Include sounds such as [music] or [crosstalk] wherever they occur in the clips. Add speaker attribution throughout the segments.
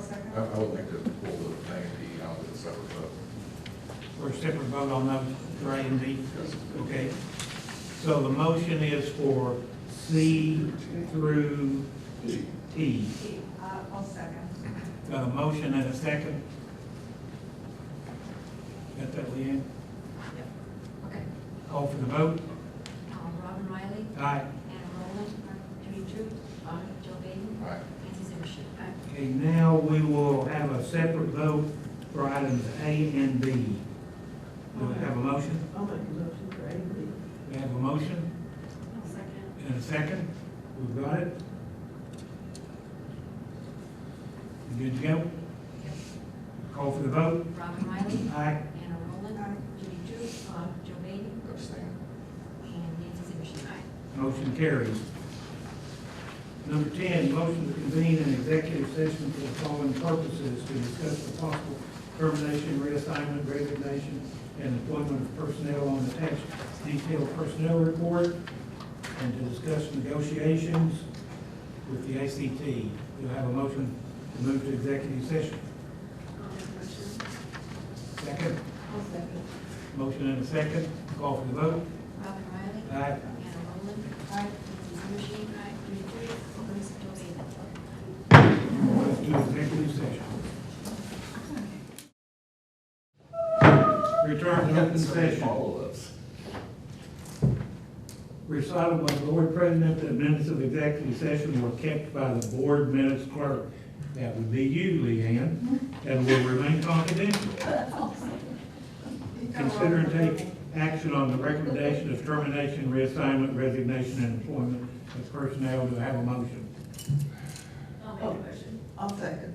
Speaker 1: second?
Speaker 2: I, I would like to pull the ninety out of the separate vote.
Speaker 3: We're separate vote on those, for A and B, okay? So the motion is for C through T.
Speaker 1: Uh, I'll second.
Speaker 3: Got a motion and a second? Got that, Leanne?
Speaker 4: Okay.
Speaker 3: Call for the vote?
Speaker 4: Um, Robin Riley,
Speaker 3: Aye.
Speaker 4: Anna Roland, Jimmy Choo, Joe Baden,
Speaker 2: Aye.
Speaker 4: Nancy Zimmerstein.
Speaker 3: Okay, now we will have a separate vote for items A and B. Do we have a motion?
Speaker 5: I'll make a motion for A and B.
Speaker 3: We have a motion
Speaker 1: I'll second.
Speaker 3: and a second? We've got it? You Good to go? Call for the vote?
Speaker 4: Robin Riley,
Speaker 3: Aye.
Speaker 4: Anna Roland, Jimmy Choo, Joe Baden,
Speaker 2: Abstain.
Speaker 4: and Nancy Zimmerstein.
Speaker 3: Motion carries. Number ten, motion to convene an executive session for the following purposes to discuss the possible termination, reassignment, resignation, and employment of personnel on attached detailed personnel report, and to discuss negotiations with the ACT. Do I have a motion to move to executive session?
Speaker 1: I'll make a motion.
Speaker 3: Second,
Speaker 5: I'll second.
Speaker 3: motion and a second, call for the vote.
Speaker 4: Robin Riley,
Speaker 3: Aye.
Speaker 4: Anna Roland, Nancy Zimmerstein, Jimmy Choo, Joe Baden.
Speaker 3: Let's do executive session. Return to open session.
Speaker 2: us.
Speaker 3: Recital by the board president that minutes of executive session were kept by the board minutes clerk. That would be you, Leanne, and will remain confidential. Consider and take action on the recommendation of termination, reassignment, resignation, and employment of personnel. Do I have a motion?
Speaker 1: I'll make a motion.
Speaker 5: I'll second.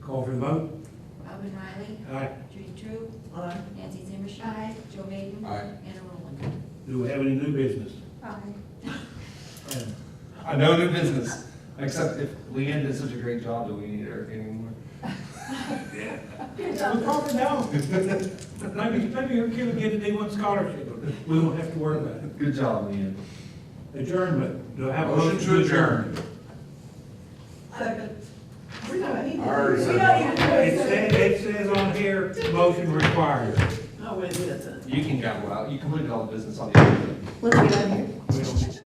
Speaker 3: Call for the vote.
Speaker 4: Robin Riley,
Speaker 3: Aye.
Speaker 4: Judy True,
Speaker 5: Aye.
Speaker 4: Nancy Zimmerstein, Joe Baden,
Speaker 2: Aye.
Speaker 4: Anna Roland.
Speaker 3: Do we have any new business?
Speaker 1: Aye.
Speaker 3: Adam?
Speaker 6: I know new business, except if Leanne did such a great job, do we need her anymore?
Speaker 3: We probably don't. [laughs] Maybe, maybe your kid will get a D one scholarship, but we won't have to worry about it.
Speaker 6: Good job, Leanne.
Speaker 3: Adjournment, do I have a
Speaker 2: Motion
Speaker 3: motion
Speaker 2: to
Speaker 3: to adjourn?
Speaker 5: Second. We don't need to.
Speaker 2: Alright.
Speaker 5: We don't need to. do
Speaker 3: It
Speaker 5: anything.
Speaker 3: says, it says on here, motion required.
Speaker 5: No, it isn't.
Speaker 6: You can go out, you completed all the business on the other.
Speaker 5: Let's get out of here.
Speaker 3: We don't-